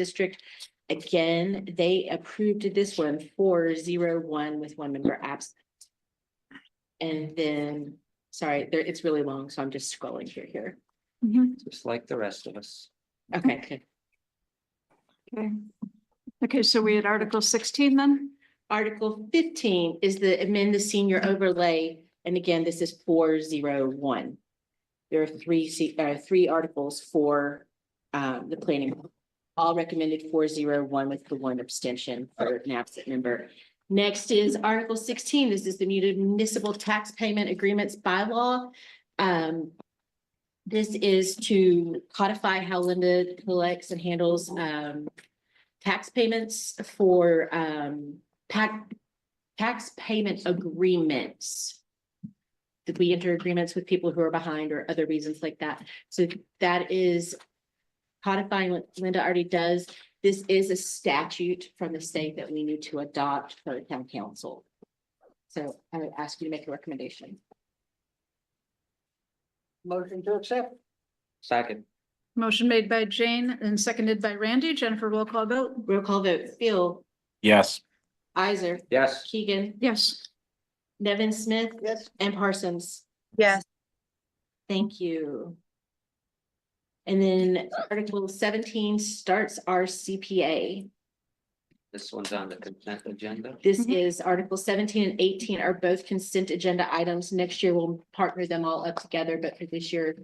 District. Again, they approved this one four zero one with one member absent. And then, sorry, there, it's really long, so I'm just scrolling through here. Mm-hmm. just like the rest of us. Okay, good. Okay. Okay, so we had Article sixteen then? Article fifteen is the amend the senior overlay, and again, this is four zero one. There are three, se- uh, three articles for, um, the planning. All recommended four zero one with the one abstention for an absent member. Next is Article sixteen. This is the municipal tax payment agreements bylaw. Um, this is to codify how Linda collects and handles, um, tax payments for, um, pac- tax payment agreements. Did we enter agreements with people who are behind or other reasons like that? So that is codifying what Linda already does. This is a statute from the state that we need to adopt for the town council. So I would ask you to make a recommendation. Motion to accept? Second, Motion made by Jane and seconded by Randy. Jennifer roll call vote? Roll call vote, Phil, Yes, Isaac, yes, Keegan, Yes. Nevin Smith, Yes. and Parsons. Yes, Thank you. And then Article seventeen starts our CPA. this one's on the consent agenda. This Mhm. is Article seventeen and eighteen are both consent agenda items. Next year, we'll partner them all up together, but for this year,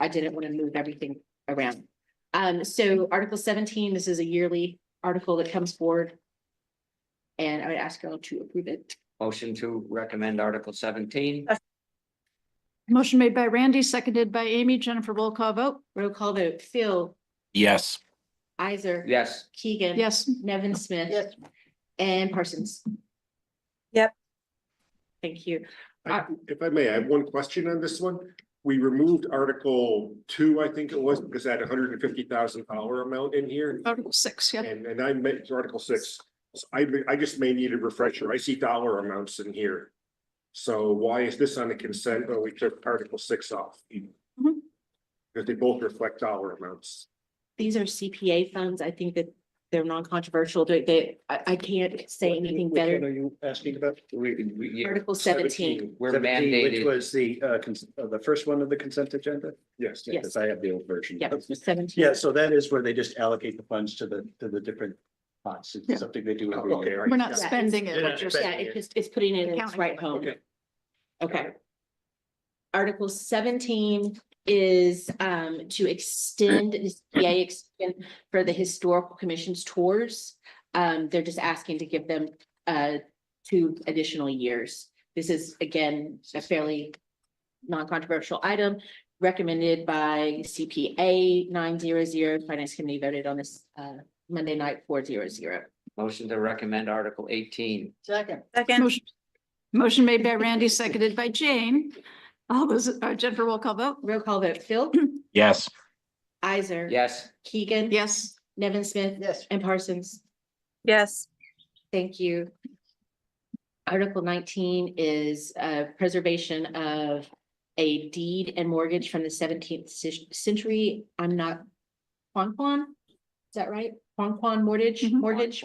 I didn't want to move everything around. Um, so Article seventeen, this is a yearly article that comes forward. And I would ask you all to approve it. Motion to recommend Article seventeen, Motion made by Randy, seconded by Amy. Jennifer roll call vote? Roll call vote, Phil, yes, Isaac. yes, Keegan. Yes. Nevin Smith. Yes. And Parsons. Yep. Thank you. I- If I may, I have one question on this one. We removed article two, I think it was, because that hundred and fifty thousand dollar amount in here. Article six, yeah. And, and I made it's article six. So I, may- I just may need a refresher. I see dollar amounts in here. So why is this on the consent? Well, we took article six off. Because they both reflect dollar amounts. These are CPA funds. I think that they're non-controversial. They- They, I, I can't say anything Which one better. Are you asking about? we, we, yeah, Article seventeen. We're 17, mandated. Which was the, uh, cons- uh, the first one of the consent agenda? Yes. Yes. Because I have the old version. Yep, seventeen. Yeah, so that is where they just allocate the funds to the, to the different pots. Yeah. It's something they do. every Okay, year. all We're right. not spending it. we're just- Yeah, it's just, it's putting it in its Accounting. right home. Okay. Okay. Article seventeen is um to extend the CPA extension for the historical commission's tours. Um, they're just asking to give them uh two additional years. This is again, a fairly non-controversial item recommended by CPA nine zero zero. Finance Committee voted on this uh Monday night four zero zero. Motion to recommend Article eighteen, Second? second, Motion motion made by Randy, seconded by Jane. All those, uh, Jennifer roll call vote? Roll call vote, Phil, yes, Isaac. yes, Keegan. Yes. Nevin Smith Yes. and Parsons. yes, Thank you. Article nineteen is uh preservation of a deed and mortgage from the seventeenth century. I'm not. Quan Quan, is that right? Quan Quan mortgage, Mhm. mortgage.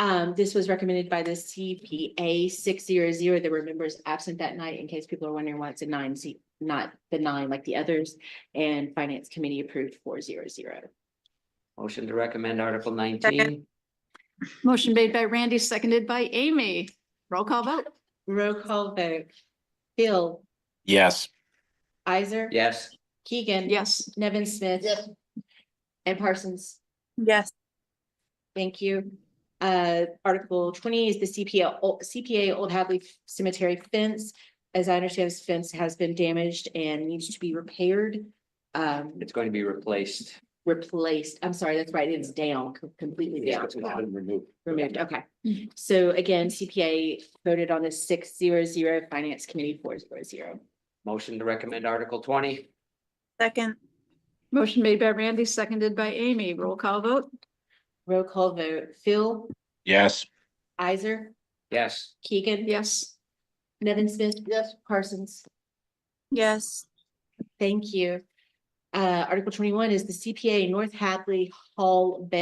Um, this was recommended by the CPA six zero zero. There were members absent that night in case people are wondering why it's a nine seat, not the nine like the others. And Finance Committee approved four zero zero. motion to recommend Article nineteen, Motion made by Randy, seconded by Amy. Roll call vote? Roll call vote. Phil, yes, Isaac. yes, Keegan. Yes. Nevin Smith. Yes. And Parsons, yes, thank you. Uh, Article twenty is the CPA, Ol- CPA Old Hadley Cemetery fence. As I understand, this fence has been damaged and needs to be repaired. Um, it's going to be replaced. replaced, I'm sorry, that's right, it's down, com- completely down. It's been removed. Removed, okay. So again, CPA voted on this six zero zero, Finance Committee four zero zero. Motion to recommend Article twenty, second, Motion made by Randy, seconded by Amy. Roll call vote? Roll call vote, Phil, yes, Isaac, yes, Keegan. Yes. Nevin Smith, Yes. Parsons. yes, Thank you. Uh, Article twenty-one is the CPA North Hadley Hall Bay